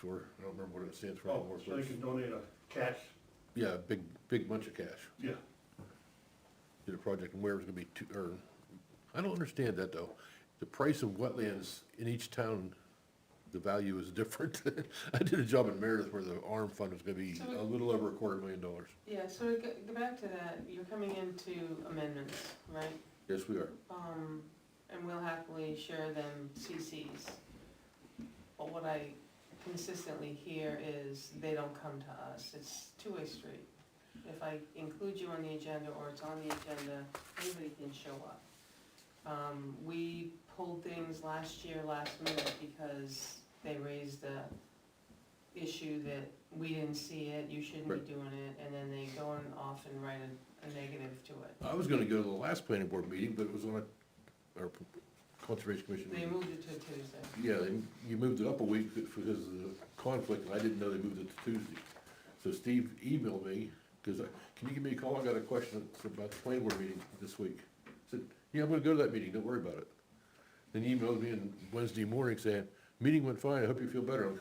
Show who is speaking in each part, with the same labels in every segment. Speaker 1: for, I don't remember what it stands for
Speaker 2: Oh,
Speaker 1: anymore.
Speaker 2: so
Speaker 1: but
Speaker 2: they
Speaker 1: it's-
Speaker 2: can donate a cash,
Speaker 1: Yeah, a big, big bunch of cash.
Speaker 2: yeah,
Speaker 1: did a project and where it was gonna be two, or, I don't understand that though. The price of wetlands in each town, the value is different. I did a job in Meredith where the ARM fund was gonna be a little over a quarter million dollars.
Speaker 3: Yeah, so to go, go back to that, you're coming into amendments, right?
Speaker 1: Yes, we are.
Speaker 3: Um, and we'll happily share them CCs. But what I consistently hear is they don't come to us, it's two-way street. If I include you on the agenda or it's on the agenda, anybody can show up. Um, we pulled things last year, last minute, because they raised the issue that we didn't see it, you shouldn't
Speaker 1: Right.
Speaker 3: be doing it, and then they go and off and write a, a negative to it.
Speaker 1: I was gonna go to the last planning board meeting, but it was on a, or conservation commission
Speaker 3: They
Speaker 1: meeting.
Speaker 3: moved it to Tuesday.
Speaker 1: Yeah, they- you moved it up a week because of the conflict, and I didn't know they moved it to Tuesday. So Steve emailed me, because, can you give me a call, I got a question It's about the planning board meeting this week. I Said, yeah, I'm gonna go to that meeting, don't worry about it. Then he emailed me on Wednesday morning saying, meeting went fine, I hope you feel better.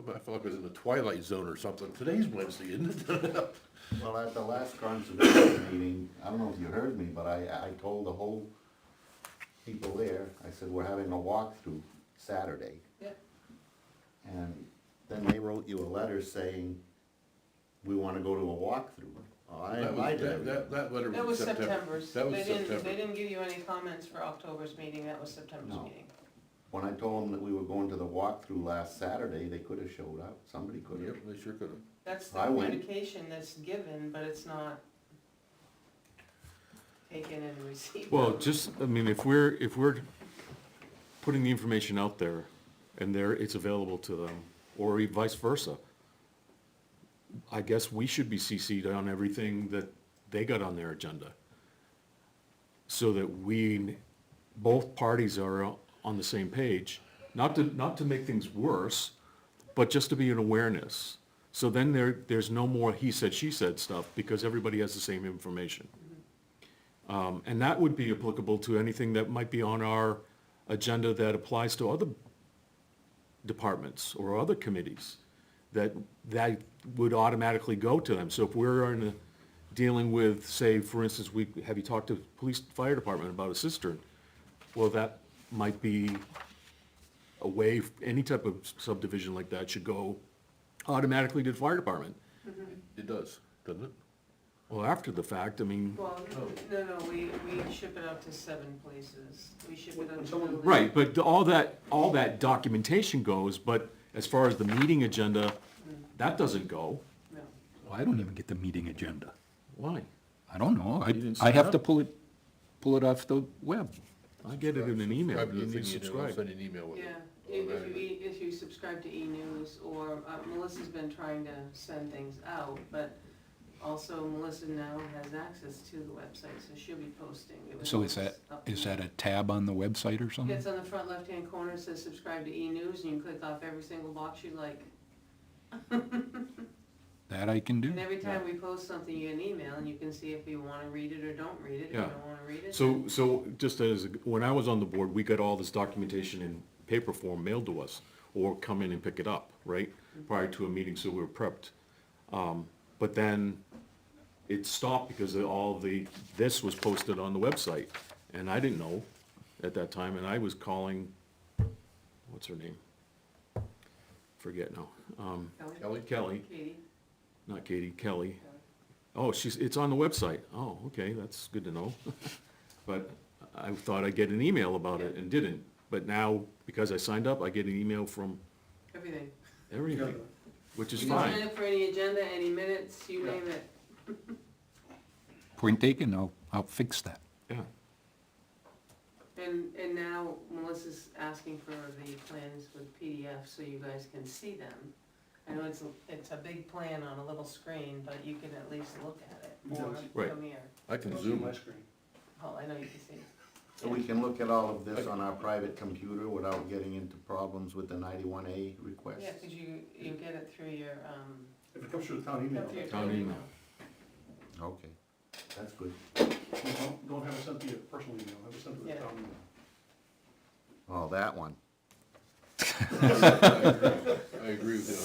Speaker 1: I'm like, I felt like I was in the twilight zone or something, today's Wednesday, isn't it?
Speaker 4: Well, at the last conservation meeting, I don't know if you heard me, but I, I told the whole people there, I said, we're having a walkthrough Saturday.
Speaker 3: Yep.
Speaker 4: And then they wrote you a letter saying, we wanna go to a walkthrough. Well, I
Speaker 1: That was-
Speaker 4: invited
Speaker 1: that- That,
Speaker 4: everybody.
Speaker 1: that letter
Speaker 3: That was
Speaker 1: was in September.
Speaker 3: September's.
Speaker 1: That was
Speaker 3: They didn't-
Speaker 1: September.
Speaker 3: They didn't give you any comments for October's meeting, that was September's
Speaker 4: No.
Speaker 3: meeting.
Speaker 4: When I told them that we were going to the walkthrough last Saturday, they could've showed up, somebody
Speaker 1: Yep,
Speaker 4: could've.
Speaker 1: they sure could've.
Speaker 3: That's the
Speaker 4: I went.
Speaker 3: communication that's given, but it's not taken and received.
Speaker 5: Well, just, I mean, if we're, if we're putting the information out there and there, it's available to them, or e-, vice versa, I guess we should be CC'd on everything that they got on their agenda. So that we, both parties are on the same page, not to, not to make things worse, but just to be an awareness. So then there, there's no more he said, she said stuff, because everybody has the same information. Um, And that would be applicable to anything that might be on our agenda that applies to other departments or other committees, that, that would automatically go to them. So if we're in a, dealing with, say, for instance, we, have you talked to police, fire department about a cistern? Well, that might be a way, any type of subdivision like that should go automatically to the fire department.
Speaker 1: It does, doesn't it?
Speaker 5: Well, after the fact, I mean,
Speaker 3: Well, no, no, we, we ship it out to seven places. We ship it out
Speaker 2: When
Speaker 3: to.
Speaker 2: someone-
Speaker 5: Right, but all that, all that documentation goes, but as far as the meeting agenda, that doesn't go.
Speaker 3: No.
Speaker 6: Well, I don't even get the meeting agenda.
Speaker 5: Why?
Speaker 6: I don't know.
Speaker 5: didn't
Speaker 6: I, I have
Speaker 5: sign
Speaker 6: to
Speaker 5: up?
Speaker 6: pull it, pull it off the web.
Speaker 5: I get it in an email,
Speaker 1: Subscribe to the
Speaker 5: you
Speaker 1: thing
Speaker 5: need to
Speaker 1: you do, I'll
Speaker 5: subscribe.
Speaker 1: Send you an email with it.
Speaker 3: Yeah, if if you, e- if you subscribe to e-news or, uh, Melissa's been trying to send things out, but also Melissa now has access to the website, so she'll be posting. It was
Speaker 6: So is
Speaker 3: always
Speaker 6: that,
Speaker 3: up
Speaker 6: is
Speaker 3: to-
Speaker 6: that a tab on the website or
Speaker 5: Um,
Speaker 3: Yeah,
Speaker 6: something?
Speaker 3: It's on the front left-hand corner, it says subscribe to e-news, and you click off every single box you like.
Speaker 6: That I can do?
Speaker 3: And every time we post something, you get an email, and you can see if you wanna read it or don't read it, if you
Speaker 5: Yeah.
Speaker 3: don't wanna read it.
Speaker 5: So, so just as, when I was on the board, we got all this documentation in paper form mailed to us, or come in and pick it up, right? Prior to a meeting, so we were prepped. Um, But then it stopped because of all the, this was posted on the website, and I didn't know at that time, and I was calling, what's her name? Forget now. Um,
Speaker 3: Kelly?
Speaker 1: Kelly?
Speaker 5: Kelly,
Speaker 3: Katie?
Speaker 5: not Katie, Kelly.
Speaker 3: Kelly.
Speaker 5: Oh, she's, it's on the website. Oh, okay, that's good to know. But I thought I'd get an email about it and didn't. But now, because I signed up, I get an email from
Speaker 3: Everything.
Speaker 5: everything, which is
Speaker 3: You can sign
Speaker 5: fine.
Speaker 3: up for any agenda, any minutes, you
Speaker 2: Yeah.
Speaker 3: name it.
Speaker 6: Point taken. I'll, I'll fix that.
Speaker 5: Yeah,
Speaker 3: And, and now Melissa's asking for the plans with PDF so you guys can see them. I know it's, a- it's a big plan on a little screen, but you can at least look at it or
Speaker 5: Right.
Speaker 3: come here.
Speaker 1: I
Speaker 2: I
Speaker 1: can
Speaker 2: don't see
Speaker 1: zoom
Speaker 2: my
Speaker 1: it.
Speaker 2: screen.
Speaker 3: Oh, I know you can see.
Speaker 4: So we can look at all of this on our private computer without getting into problems with the ninety-one A request.
Speaker 3: Yeah, cause you, you get it through your, um,
Speaker 2: If it comes through the town email,
Speaker 3: through your
Speaker 5: Town
Speaker 3: email.
Speaker 4: Okay, that's good.
Speaker 2: you don't, don't have it sent to your personal email, have it sent to the
Speaker 3: Yeah.
Speaker 2: town email.
Speaker 4: Oh, that one.
Speaker 1: I agree with you.